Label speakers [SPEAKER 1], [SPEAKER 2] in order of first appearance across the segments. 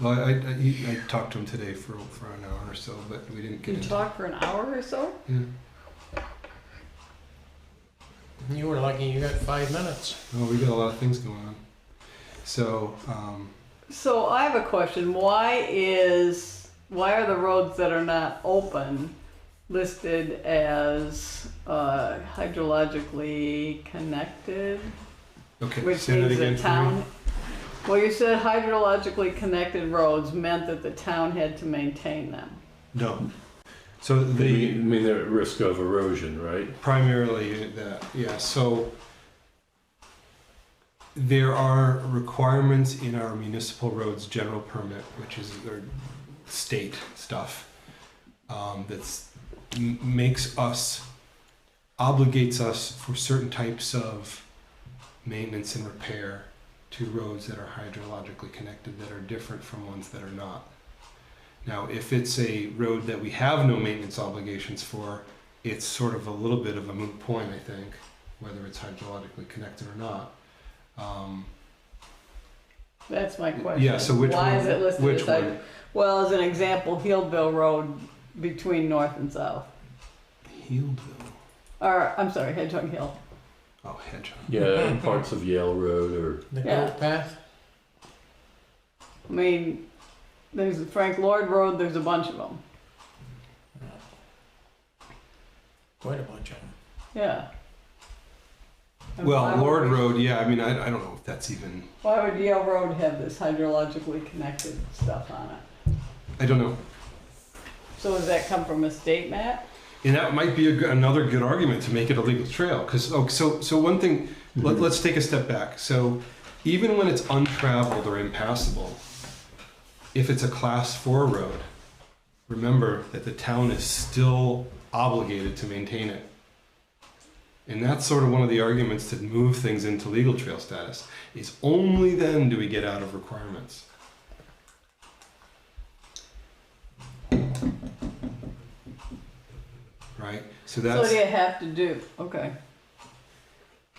[SPEAKER 1] Well, I, I, he- I talked to him today for, for an hour or so, but we didn't get
[SPEAKER 2] You
[SPEAKER 1] into
[SPEAKER 2] talk for an hour or so?
[SPEAKER 1] Yeah.
[SPEAKER 3] You were lucky you got five minutes.
[SPEAKER 1] Oh, we got a lot of things going on. So, um,
[SPEAKER 2] So I have a question. Why is why are the roads that are not open listed as uh, hydrologically connected?
[SPEAKER 1] okay,
[SPEAKER 2] Which
[SPEAKER 1] say that
[SPEAKER 2] means
[SPEAKER 1] again
[SPEAKER 2] the
[SPEAKER 1] for me.
[SPEAKER 2] town. Well, you said hydrologically connected roads meant that the town had to maintain them.
[SPEAKER 1] No. So
[SPEAKER 4] I mean- I
[SPEAKER 1] the
[SPEAKER 4] mean, they're at risk of erosion, right?
[SPEAKER 1] primarily that yeah. So there are requirements in our municipal roads general permit, which is their state stuff. Um, that's m- makes us obligates us for certain types of maintenance and repair to roads that are hydrologically connected that are different from ones that are not. Now, if it's a road that we have no maintenance obligations for, it's sort of a little bit of a moot point, I think, whether it's hydrologically connected or not. Um,
[SPEAKER 2] That's my question.
[SPEAKER 1] yeah, so which
[SPEAKER 2] Why
[SPEAKER 1] one?
[SPEAKER 2] is it listed
[SPEAKER 1] which
[SPEAKER 2] as hyd-
[SPEAKER 1] one?
[SPEAKER 2] Well, as an example, Healdville Road between north and south.
[SPEAKER 1] Healdville.
[SPEAKER 2] Or I'm sorry, Hedgehog Hill.
[SPEAKER 1] Oh, Hedgehog.
[SPEAKER 4] Yeah, and parts of Yale Road or
[SPEAKER 3] The
[SPEAKER 2] Yeah.
[SPEAKER 3] goat path.
[SPEAKER 2] I mean, there's the Frank Lloyd Road. There's a bunch of them.
[SPEAKER 3] Quite a bunch of them.
[SPEAKER 2] Yeah. And why
[SPEAKER 1] Well,
[SPEAKER 2] would
[SPEAKER 1] Lord
[SPEAKER 2] we-
[SPEAKER 1] Road, yeah, I mean, I, I don't know if that's even,
[SPEAKER 2] Why would Yale Road have this hydrologically connected stuff on it?
[SPEAKER 1] I don't know.
[SPEAKER 2] So does that come from a state map?
[SPEAKER 1] And that might be a g another good argument to make it a legal trail, because oh, so so one thing. Let, let's take a step back. So, even when it's untraveled or impassable, if it's a class four road, remember that the town is still obligated to maintain it. And that's sort of one of the arguments to move things into legal trail status. Is only then do we get out of requirements. Right.
[SPEAKER 2] So
[SPEAKER 1] So that's
[SPEAKER 2] what do you have to do? Okay.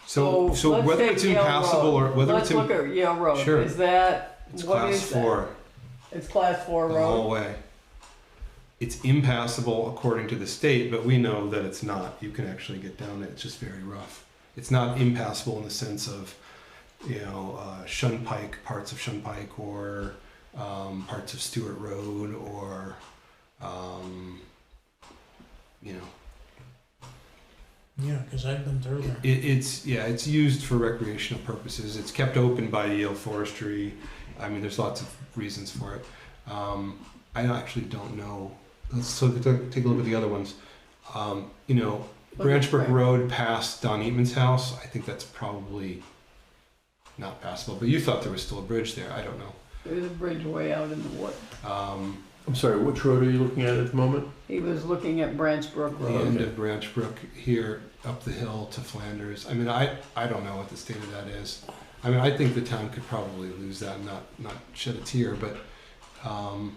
[SPEAKER 1] so. So,
[SPEAKER 2] let's
[SPEAKER 1] whether
[SPEAKER 2] take
[SPEAKER 1] it's
[SPEAKER 2] Yale
[SPEAKER 1] impassable
[SPEAKER 2] Road.
[SPEAKER 1] or whether
[SPEAKER 2] let's
[SPEAKER 1] it's in,
[SPEAKER 2] look at Yale Road.
[SPEAKER 1] Sure.
[SPEAKER 2] Is that
[SPEAKER 1] It's
[SPEAKER 2] what
[SPEAKER 1] class
[SPEAKER 2] is that?
[SPEAKER 1] four
[SPEAKER 2] It's class four
[SPEAKER 1] the
[SPEAKER 2] road.
[SPEAKER 1] whole way. It's impassable according to the state, but we know that it's not. You can actually get down it. It's just very rough. It's not impassable in the sense of, you know, uh, Shun Pike, parts of Shun Pike, or um, parts of Stewart Road, or, um, you know,
[SPEAKER 3] Yeah, because I've been through there.
[SPEAKER 1] It, it's yeah, it's used for recreational purposes. It's kept open by Yale Forestry. I mean, there's lots of reasons for it. Um, I actually don't know. Let's so t- take a look at the other ones. Um, you know,
[SPEAKER 2] Look at
[SPEAKER 1] Branchbrook
[SPEAKER 2] Frank.
[SPEAKER 1] Road past Don Eatman's house. I think that's probably not passable. But you thought there was still a bridge there. I don't know.
[SPEAKER 2] There's a bridge way out in the wood.
[SPEAKER 1] Um,
[SPEAKER 4] I'm sorry, which road are you looking at at the moment?
[SPEAKER 2] He was looking at Branch Brook
[SPEAKER 1] the
[SPEAKER 2] Road.
[SPEAKER 1] end
[SPEAKER 4] Okay.
[SPEAKER 1] of Branch Brook here up the hill to Flanders. I mean, I, I don't know what the state of that is. I mean, I think the town could probably lose that and not, not shed a tear, but, um,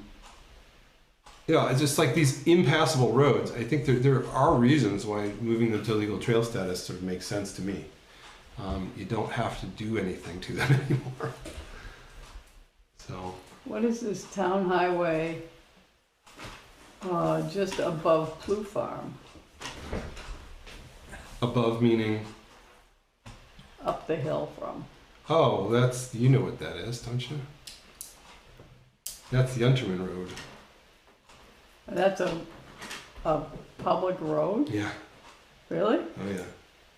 [SPEAKER 1] yeah, it's just like these impassable roads. I think there, there are reasons why moving them to legal trail status sort of makes sense to me. Um, you don't have to do anything to them anymore. So,
[SPEAKER 2] What is this town highway uh, just above Plough Farm,
[SPEAKER 1] above meaning,
[SPEAKER 2] up the hill from?
[SPEAKER 1] oh, that's, you know what that is, don't you? That's the Unterman Road.
[SPEAKER 2] That's a, a public road?
[SPEAKER 1] Yeah.
[SPEAKER 2] Really? Hmm.
[SPEAKER 1] Oh yeah.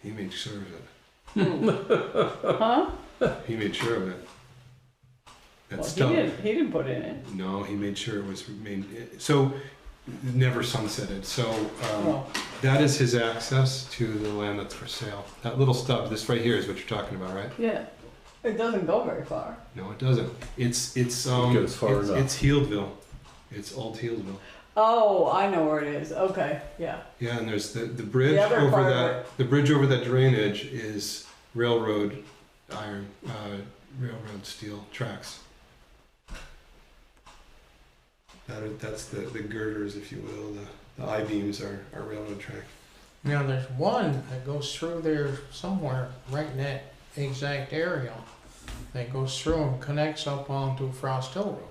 [SPEAKER 1] He made sure of it.
[SPEAKER 2] Huh?
[SPEAKER 1] He made sure of it. That
[SPEAKER 2] Well, he
[SPEAKER 1] stuff.
[SPEAKER 2] didn't, he didn't put in it.
[SPEAKER 1] No, he made sure it was made. So never sunsetted. So um,
[SPEAKER 2] Oh,
[SPEAKER 1] that is his access to the land that's for sale. That little stub, this right here, is what you're talking about, right?
[SPEAKER 2] yeah. It doesn't go very far.
[SPEAKER 1] No, it doesn't. It's it's um.
[SPEAKER 4] goes far
[SPEAKER 1] it's,
[SPEAKER 4] enough.
[SPEAKER 1] it's Healdville. It's old Healdville.
[SPEAKER 2] Oh, I know where it is. Okay, yeah.
[SPEAKER 1] Yeah, and there's the, the bridge
[SPEAKER 2] other
[SPEAKER 1] over
[SPEAKER 2] part of
[SPEAKER 1] that, the bridge over that drainage is railroad iron, uh, railroad steel tracks. That are, that's the, the girders, if you will, the, the I-beams are, are railroad track.
[SPEAKER 3] Now, there's one that goes through there somewhere, right in that exact area, that goes through and connects up onto Frost Hill Road.